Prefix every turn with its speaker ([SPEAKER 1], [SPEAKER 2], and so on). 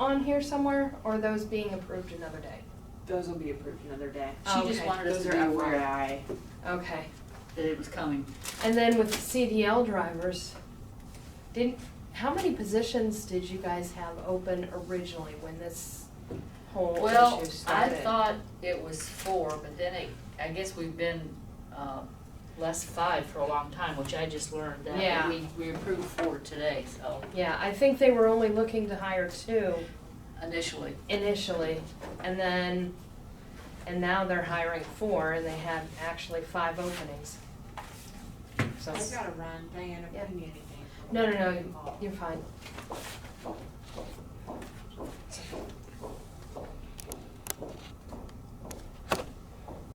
[SPEAKER 1] on here somewhere, or those being approved another day?
[SPEAKER 2] Those will be approved another day.
[SPEAKER 1] Oh,
[SPEAKER 3] She just
[SPEAKER 1] okay.
[SPEAKER 3] wanted us
[SPEAKER 2] Those
[SPEAKER 3] to
[SPEAKER 2] are
[SPEAKER 3] be aware
[SPEAKER 2] FYI.
[SPEAKER 1] Okay,
[SPEAKER 3] that it was coming.
[SPEAKER 1] and then with CDL drivers, didn't, how many positions did you guys have open originally when this whole
[SPEAKER 3] Well,
[SPEAKER 1] issue started?
[SPEAKER 3] I thought it was four, but then it, I guess we've been, um, less five for a long time, which I just learned that. but
[SPEAKER 1] Yeah.
[SPEAKER 3] We, we approved four today, so
[SPEAKER 1] Yeah, I think they were only looking to hire two
[SPEAKER 3] initially,
[SPEAKER 1] initially, and then, and now they're hiring four, and they had actually five openings. So,
[SPEAKER 4] I've gotta run, Diana,
[SPEAKER 1] Yeah.
[SPEAKER 4] if you need anything.
[SPEAKER 1] no, no, no, you're fine.